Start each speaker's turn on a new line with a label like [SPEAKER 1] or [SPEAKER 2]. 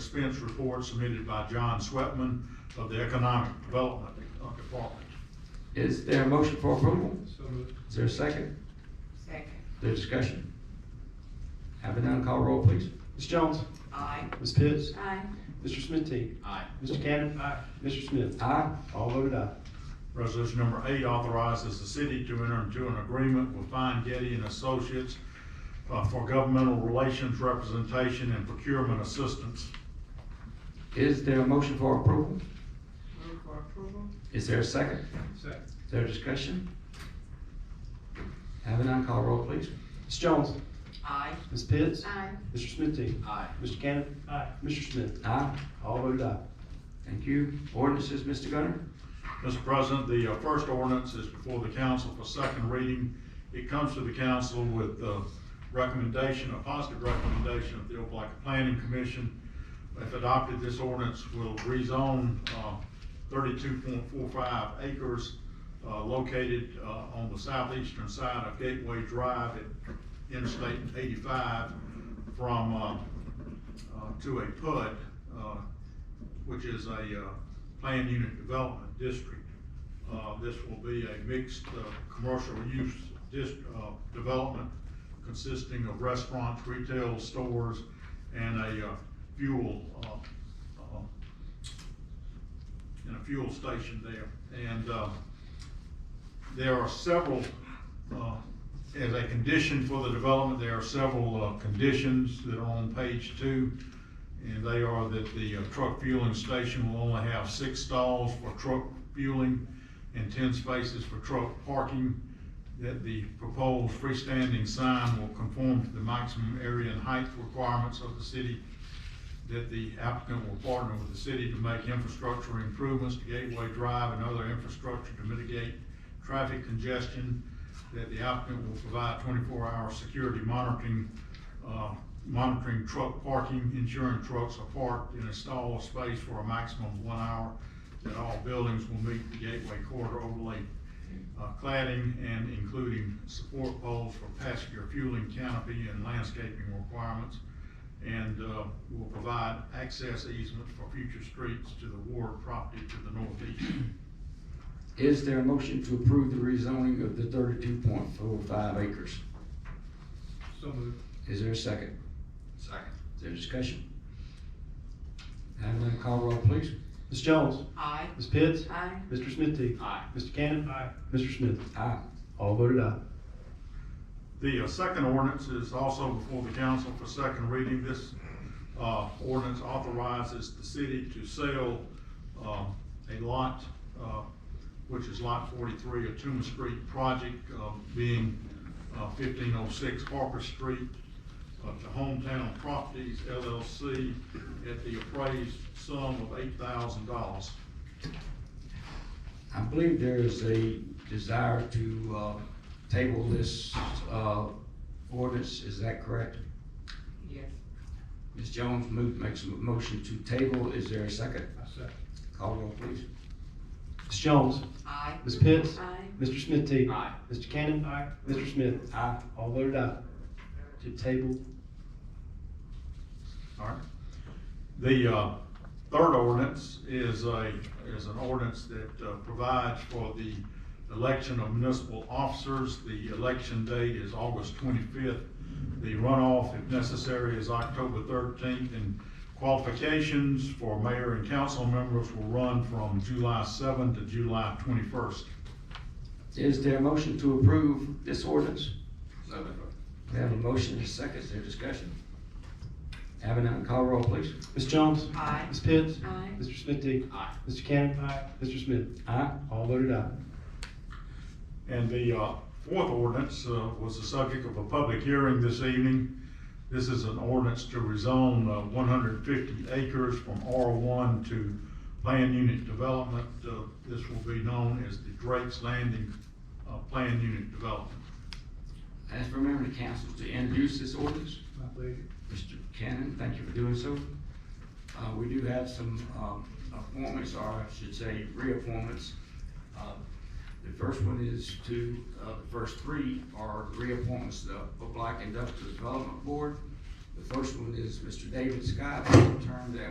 [SPEAKER 1] expense report submitted by John Swetman of the Economic Development Department.
[SPEAKER 2] Is there a motion for approval?
[SPEAKER 3] So moved.
[SPEAKER 2] Is there a second?
[SPEAKER 4] Second.
[SPEAKER 2] There's discussion. Have it done, call roll, please.
[SPEAKER 5] Ms. Jones?
[SPEAKER 4] Aye.
[SPEAKER 5] Ms. Pitts?
[SPEAKER 4] Aye.
[SPEAKER 5] Mr. Smithy?
[SPEAKER 6] Aye.
[SPEAKER 5] Mr. Cannon?
[SPEAKER 3] Aye.
[SPEAKER 5] Mr. Smith?
[SPEAKER 2] Aye.
[SPEAKER 5] All voted aye.
[SPEAKER 1] Resolution number eight authorizes the city to enter into an agreement with Fine Getty and Associates uh, for governmental relations representation and procurement assistance.
[SPEAKER 2] Is there a motion for approval?
[SPEAKER 4] Move for approval.
[SPEAKER 2] Is there a second?
[SPEAKER 3] Second.
[SPEAKER 2] Is there discussion? Have it done, call roll, please.
[SPEAKER 5] Ms. Jones?
[SPEAKER 4] Aye.
[SPEAKER 5] Ms. Pitts?
[SPEAKER 4] Aye.
[SPEAKER 5] Mr. Smithy?
[SPEAKER 6] Aye.
[SPEAKER 5] Mr. Cannon?
[SPEAKER 3] Aye.
[SPEAKER 5] Mr. Smith?
[SPEAKER 2] Aye.
[SPEAKER 5] All voted aye.
[SPEAKER 2] Thank you. Ordinances, Mr. Gunner?
[SPEAKER 1] Mr. President, the uh, first ordinance is before the council for second reading. It comes to the council with the recommendation, a positive recommendation of the Opelika Planning Commission. If adopted, this ordinance will rezone uh, thirty-two point four five acres uh, located uh, on the southeastern side of Gateway Drive at Interstate eighty-five from, uh, uh, to a PUD, uh, which is a uh, planned unit development district. Uh, This will be a mixed uh, commercial use dis- uh, development consisting of restaurants, retail stores, and a uh, fuel, uh, uh, and a fuel station there. And uh, there are several, uh, as a condition for the development, there are several uh, conditions that are on page two. And they are that the uh, truck fueling station will only have six stalls for truck fueling and ten spaces for truck parking. That the proposed freestanding sign will conform to the maximum area and height requirements of the city. That the applicant will partner with the city to make infrastructure improvements to Gateway Drive and other infrastructure to mitigate traffic congestion. That the applicant will provide twenty-four hour security monitoring uh, monitoring truck parking, ensuring trucks are parked in a stall space for a maximum of one hour, that all buildings will meet the Gateway Corridor overlay uh, cladding and including support poles for passenger fueling canopy and landscaping requirements, and uh, will provide access easement for future streets to the Ward property to the northeast.
[SPEAKER 2] Is there a motion to approve the rezoning of the thirty-two point four five acres?
[SPEAKER 3] So moved.
[SPEAKER 2] Is there a second?
[SPEAKER 6] Second.
[SPEAKER 2] Is there discussion? Have it done, call roll, please.
[SPEAKER 5] Ms. Jones?
[SPEAKER 4] Aye.
[SPEAKER 5] Ms. Pitts?
[SPEAKER 4] Aye.
[SPEAKER 5] Mr. Smithy?
[SPEAKER 6] Aye.
[SPEAKER 5] Mr. Cannon?
[SPEAKER 3] Aye.
[SPEAKER 5] Mr. Smith?
[SPEAKER 2] Aye.
[SPEAKER 5] All voted aye.
[SPEAKER 1] The uh, second ordinance is also before the council for second reading. This uh, ordinance authorizes the city to sell um, a lot, uh, which is Lot 43 of Tuma Street Project, uh, being uh, 1506 Harper Street, uh, to Hometown Properties LLC at the appraised sum of $8,000.
[SPEAKER 2] I believe there is a desire to, uh, table this, uh, ordinance, is that correct?
[SPEAKER 4] Yes.
[SPEAKER 2] Ms. Jones moved, makes a motion to table, is there a second?
[SPEAKER 3] I second.
[SPEAKER 2] Call roll, please.
[SPEAKER 5] Ms. Jones?
[SPEAKER 4] Aye.
[SPEAKER 5] Ms. Pitts?
[SPEAKER 4] Aye.
[SPEAKER 5] Mr. Smithy?
[SPEAKER 6] Aye.
[SPEAKER 5] Mr. Cannon?
[SPEAKER 3] Aye.
[SPEAKER 5] Mr. Smith?
[SPEAKER 2] Aye.
[SPEAKER 5] All voted aye. To table.
[SPEAKER 1] All right. The uh, third ordinance is a, is an ordinance that uh, provides for the election of municipal officers. The election date is August twenty-fifth. The runoff, if necessary, is October thirteenth, and qualifications for mayor and council members will run from July seventh to July twenty-first.
[SPEAKER 2] Is there a motion to approve this ordinance?
[SPEAKER 6] So moved.
[SPEAKER 2] We have a motion and a second, is there discussion? Have it done, call roll, please.
[SPEAKER 5] Ms. Jones?
[SPEAKER 4] Aye.
[SPEAKER 5] Ms. Pitts?
[SPEAKER 4] Aye.
[SPEAKER 5] Mr. Smithy?
[SPEAKER 6] Aye.
[SPEAKER 5] Mr. Cannon? Aye. Mr. Smith?
[SPEAKER 2] Aye.
[SPEAKER 5] All voted aye.
[SPEAKER 1] And the uh, fourth ordinance uh, was the subject of a public hearing this evening. This is an ordinance to rezone uh, 150 acres from R1 to Plan Unit Development. Uh, This will be known as the Drake's Landing uh, Plan Unit Development.
[SPEAKER 2] Ask for a member of the council to introduce this ordinance.
[SPEAKER 3] My pleasure.
[SPEAKER 2] Mr. Cannon, thank you for doing so. Uh, we do have some, um, appointments, or I should say reappointments. Uh, The first one is to, uh, the first three are reappointments to the Black Industrial Development Board. The first one is Mr. David Scott, term that